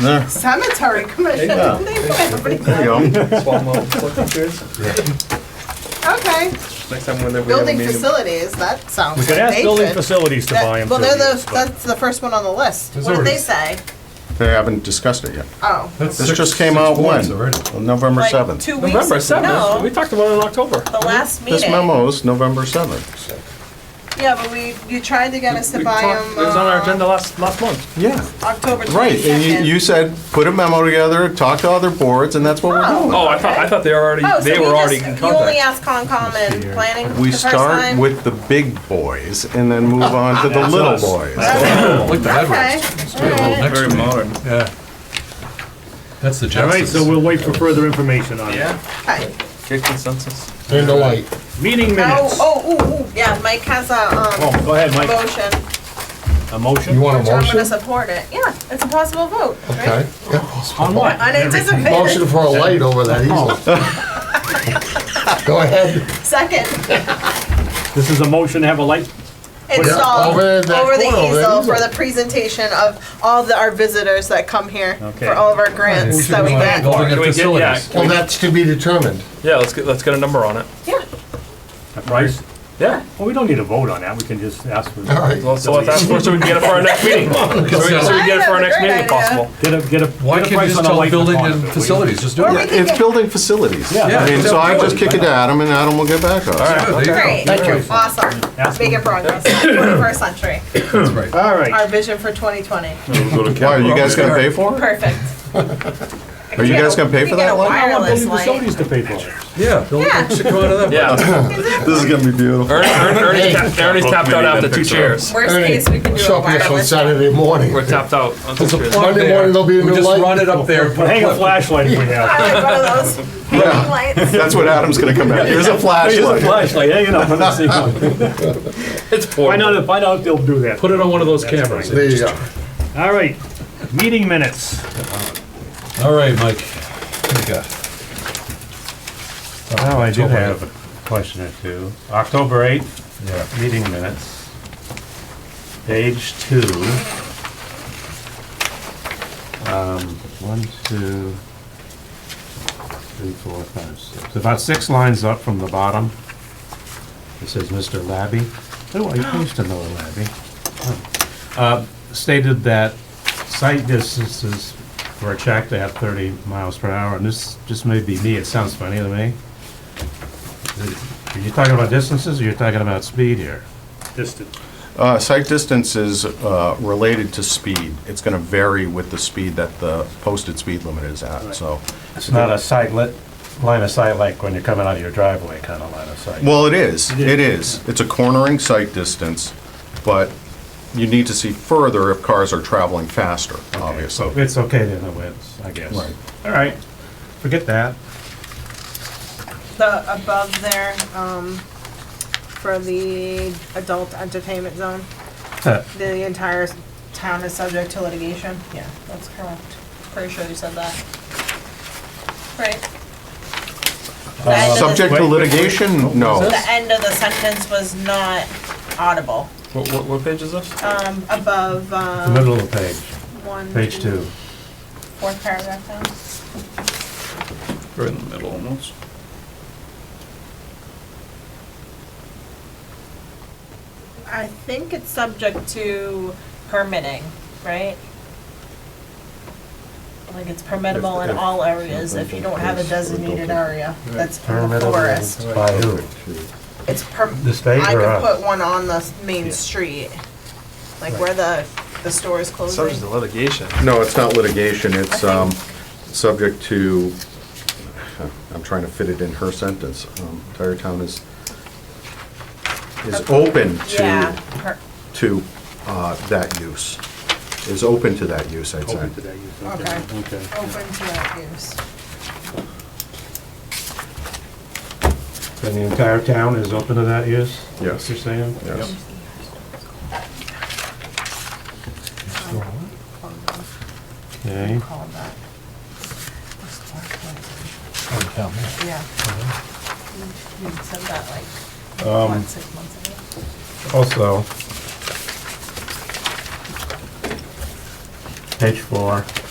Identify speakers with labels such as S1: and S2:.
S1: There
S2: Sanitary commission.
S1: There you go.
S2: They put everything.
S1: there you go.
S2: Okay,
S3: Next time when we have a
S2: building
S3: meeting.
S2: facilities, that sounds
S4: We
S2: like
S4: could ask
S2: they
S4: building
S2: should.
S4: facilities to buy
S2: That-
S4: them.
S2: Well,
S4: too,
S2: they're the,
S4: but-
S2: that's the first one on the list. What did
S5: already-
S2: they say?
S1: They haven't discussed it yet.
S2: Oh,
S1: This just came out when? November
S2: like
S1: 7th.
S2: two weeks.
S3: November 7th,
S2: No,
S3: we talked about it in October.
S2: the last meeting.
S1: This memo is November 7th.
S2: Yeah, but we, you tried to get us to
S3: We
S2: buy
S3: talked-
S2: them,
S3: It was on our
S2: uh,
S3: agenda last, last month.
S1: Yeah,
S2: October
S1: right. And you- you
S2: twenty-second.
S1: said, put a memo together, talk to other boards, and that's what we're
S2: Oh.
S1: doing.
S3: Oh, I thought, I thought they were already,
S2: Oh, so
S3: they
S2: we
S3: were already
S2: just-
S3: in
S2: You only asked
S3: contact.
S2: Concom and planning the
S1: We
S2: first time?
S1: start with the big boys and then move on to the little boys.
S5: Like the
S2: Okay,
S5: Edwards.
S2: alright.
S5: Next
S3: Very
S5: meeting.
S3: modern.
S5: Yeah. That's the
S4: All right, so
S5: Jetsons.
S4: we'll wait for further information on it.
S3: Yeah,
S2: okay.
S3: get consensus.
S6: Turn the light.
S4: Meeting
S2: Oh,
S4: minutes.
S2: oh, ooh, ooh, yeah, Mike has a, um,
S4: Oh, go ahead, Mike.
S2: motion,
S4: A
S6: You
S4: motion?
S6: want
S2: which
S6: a
S2: I'm gonna
S6: motion?
S2: support it. Yeah, it's a possible vote, right?
S6: Okay. Yeah.
S4: On what?
S6: Motion
S2: Unanticipated,
S6: for a light over that easel. Go ahead.
S2: second,
S4: This is a motion to have a light?
S2: installed
S6: over
S2: over
S6: that
S2: the
S6: corner, over that
S2: easel for
S6: easel.
S2: the presentation of all the, our visitors that come here
S4: Okay.
S2: for all of our grants that we get.
S5: Building
S3: Can
S5: and
S3: we get- yeah.
S5: facilities.
S6: Well, that's to be determined.
S3: Yeah, let's get, let's get a number on it.
S2: Yeah,
S4: A price?
S3: Yeah.
S4: Well, we don't need a vote on that, we can just ask for,
S6: All right.
S3: Well, So let's ask for, it so we can get it for our next meeting. So we can so we can get it for our next meeting if possible.
S4: get a, get a,
S5: Why
S4: get a
S5: can't you
S4: price
S5: just
S4: on a
S5: tell
S4: light.
S5: building
S4: component,
S5: and
S4: please.
S5: facilities, just do
S2: Or
S5: it?
S2: we
S1: Yeah,
S2: can
S1: It's
S2: get-
S1: building facilities.
S4: Yeah.
S1: I mean, so I just kick it to Adam and Adam will get back to us.
S5: Yeah, there
S2: great,
S5: you go.
S4: Ask
S2: awesome, making
S4: them.
S2: progress, twenty-first century,
S5: That's right.
S4: All right,
S2: our vision for twenty twenty,
S1: Why, are you guys gonna pay for it?
S2: perfect.
S1: Are you guys gonna pay for that light?
S4: I want
S2: Wireless
S4: building
S2: light.
S4: facilities to pay for it.
S5: Yeah.
S2: Yeah.
S5: Should go out of that.
S3: Yeah.
S1: This is gonna be beautiful.
S3: Ernie, Ernie, Ernie's tapped- Ernie's tapped out after two chairs.
S2: Worst
S6: Ernie,
S2: case, we can do a
S6: Show us on
S2: wireless.
S6: Saturday morning.
S3: We're tapped out on two
S6: There's a
S3: chairs.
S6: plug Monday morning, there'll be a
S5: We
S6: new
S5: just
S6: light.
S5: run it up there.
S4: But hang a flashlight if we have.
S2: I like one of those hanging lights.
S1: That's what Adam's gonna come out. Here's a flashlight.
S4: Flashlight, hang it up, let's see. Find
S3: It's portable.
S4: out, if- find out if they'll do that.
S5: Put it on one of those cameras.
S6: There you go.
S4: All right, meeting minutes.
S5: All right, Mike. What do you got?
S4: Oh, I do
S5: October
S4: have a question or two. October 8th,
S5: Yeah.
S4: meeting minutes. Page two. Um, one, two, three, four, five, six. About six lines up from the bottom. It says Mr. Labby. Oh, I used to know Labby. Uh, Stated that sight distances for a check to have 30 miles per hour, and this just may be me, it sounds funny to me. Are you talking about distances, or you're talking about speed here? Distance.
S1: Uh, Sight distance is uh, related to speed. It's going to vary with the speed that the posted speed limit is at, so.
S4: It's not a sight lit, line of sight like when you're coming out of your driveway kind of line of sight.
S1: Well, it is, it is. It's a cornering sight distance, but you need to see further if cars are traveling faster,
S4: So
S1: obviously.
S4: it's okay then, it wins, I guess.
S1: Right.
S4: All right, forget that.
S2: The above there, um, for the adult entertainment zone,
S4: Huh.
S2: the entire town is subject to litigation. Yeah, that's correct. Pretty sure you said that. Right? The end of the-
S1: Subject to
S4: Wait, wait, wait.
S1: litigation? No.
S2: The end of the sentence was not audible.
S3: What, what- what page is this?
S2: Um, above,
S4: The
S2: um,
S4: middle of the page,
S2: one.
S4: page two.
S2: Fourth paragraph down.
S3: Right in the middle almost.
S2: I think it's subject to permitting, right? Like it's permittable in all areas if you don't have a designated area that's from the
S4: Permittable
S2: forest.
S4: By who?
S2: It's per,
S4: The state
S2: I
S4: or
S2: could
S4: us?
S2: put one on the s- main street, like where the, the store is
S3: Subject
S2: closing.
S3: to litigation.
S1: No, it's not litigation, it's
S2: I
S1: um, subject to, I'm trying to fit it in her sentence. Um, Entire town is, is open
S2: Yeah,
S1: to
S2: per-
S1: to uh, that use, is open to that use, I'd say.
S4: Open to that use,
S2: okay,
S4: okay.
S2: open to that use.
S4: And the entire town is open to that use? Is that what
S1: Yes.
S4: You're saying?
S1: Yes.
S4: Okay.
S2: Call that. Oh,
S5: Down there.
S2: Yeah. Uh-huh. You you said that like, what, six months ago?
S4: Also, page four,